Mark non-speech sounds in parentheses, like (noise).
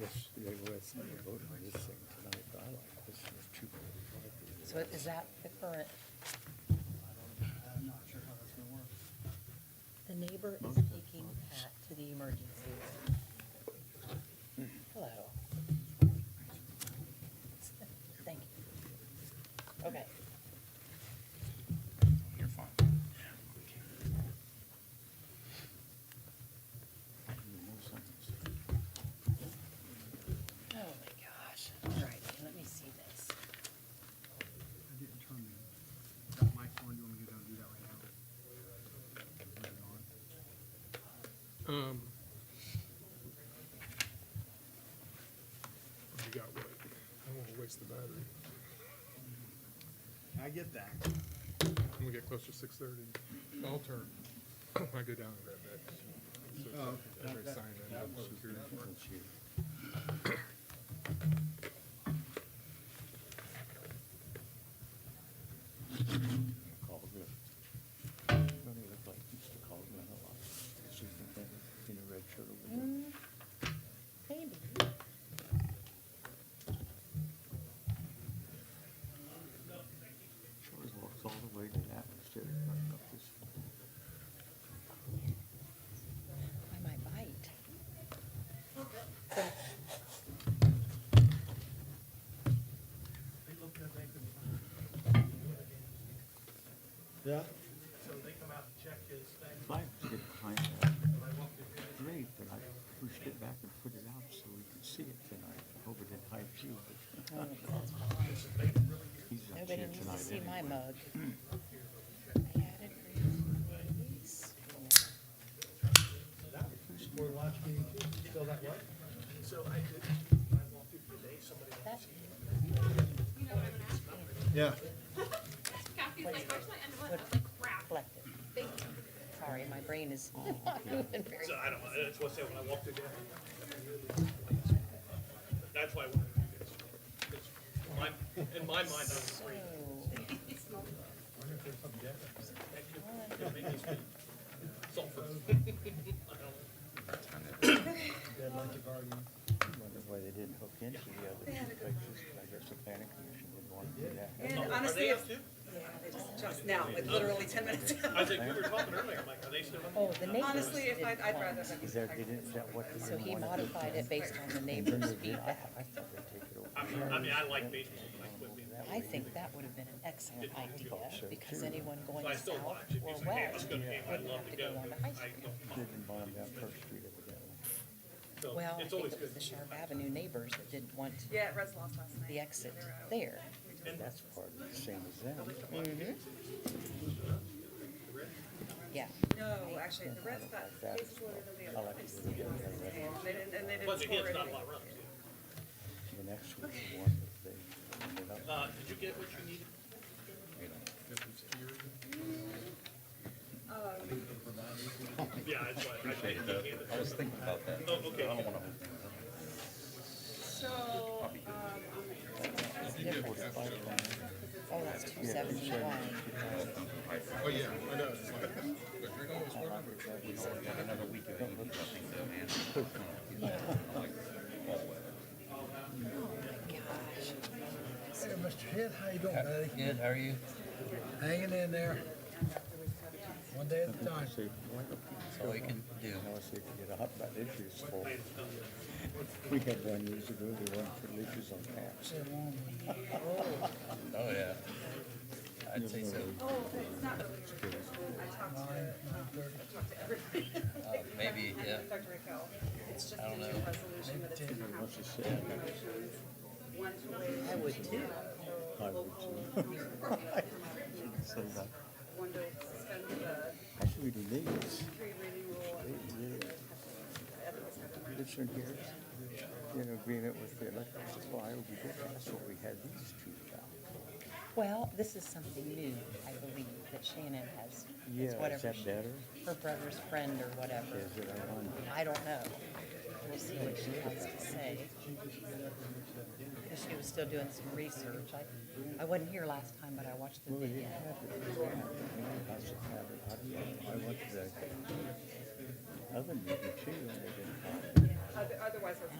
yesterday was, I voted on this thing tonight, but I like this one, it's too bad. So is that the current? I'm not sure how that's gonna work. The neighbor is taking Pat to the emergency room. Hello. Thank you. Okay. You're fine. Oh, my gosh. All right, let me see this. I didn't turn the, that mic on, do you want me to go and do that right now? Turn it on. Um. You got what? I don't wanna waste the battery. I get that. When we get close to six thirty, I'll turn, I go down and grab that. So it's Oh, like every that- sign I know, security. Caldwell. Don't he look like Mr. Caldwell a lot? She's in that- in a red shirt over there. Hmm. Maybe. Sure he walks all the way to that instead of running up this. I might bite. Yeah? If I could get behind that, great, but I pushed it back and put it out so we could see it tonight. Hope it didn't hide you, but Oh, he's not Nobody here needs to tonight see my anyway. mug. I had it for That, Yeah. Kathy's like, where's my end one? I was like, crap. collected. Thank you. Sorry, my brain is (laughs) not moving very. Oh, So I don't, that's what I said when I walked in there. That's why I wanted to do this. It's my, in my mind, I'm So, free. Sulfur. Dead like a guardian. Wonder why they didn't hook into the other two pictures, but I guess the planning commission didn't want to do that. And Are honestly, they it's, up too? yeah, they just just now, like literally ten minutes ago. I was like, we were talking earlier, I'm like, are they still? Oh, the neighbors. Honestly, if did I'd, I'd one. rather than. Is there, they didn't, is that what they So didn't he want to do? modified it based on the And then neighbor's they (laughs) did, I, feedback. I thought they'd take it over. I mean, I mean, I like baseball, but I quit being. I think that would have been an excellent idea, because anyone going So I south still watch it. or He's like, hey, let's west wouldn't have go to game, I'd love to to go go, on the but high I school. don't mind. Didn't bond down First Street evidently. So Well, I it's think always it was good. the Sharp Avenue neighbors that didn't want Yeah, it was lost last night. the exit They were out. there. That's part of the same as them. Mm-hmm. Yeah, No, actually, the Reds got, cases I were like it when they get rid of it. and they didn't, and they didn't Plus, score again, it's not a anything. lot of runs. The next one, the one that they ended up, Uh, did you get what you needed? you know, Yeah, that's why. I think you handed it. I was thinking about that. Oh, okay. I don't wanna hold things up. So, um, it's different. Oh, that's two seventy-one. Oh, yeah, I know, it's like, but you're always wondering. Got another week of eating, I think, though, man. Gosh. Hey, Mr. Head, how you doing, buddy? Good, how are you? Hanging in there. One day at a time. see, like a That's all we can do. Now, let's see if we get a hot button issue for. We had one years ago, they weren't for leaches on caps. Sit along with you. Oh, yeah. I'd say so. oh, it's not really, I talked to, um, I talked to everybody. Uh, (laughs) maybe, yeah. Dr. Raquel, it's just I a don't new know. resolution, but it's gonna have What's it two say? motions. One to waive. I would too. I would too. (laughs) (laughs) So that, One to suspend the actually, the leaves, three reading rule. they, they, this one here, in agreement with the electric supply, we did, that's what we had these two jobs. Well, this is something new, I believe, that Shannon has, Yeah, it's is whatever, that she- better? her brother's friend or whatever. Is it I wonder? I don't know. We'll see what she has to say. Because she was still doing some research. I, I wasn't here last time, but I watched the Well, it video. didn't have it, it was bad. I mean, I should have it, I don't know, I went to the oven meeting too, and they didn't have it. Other- Otherwise, it's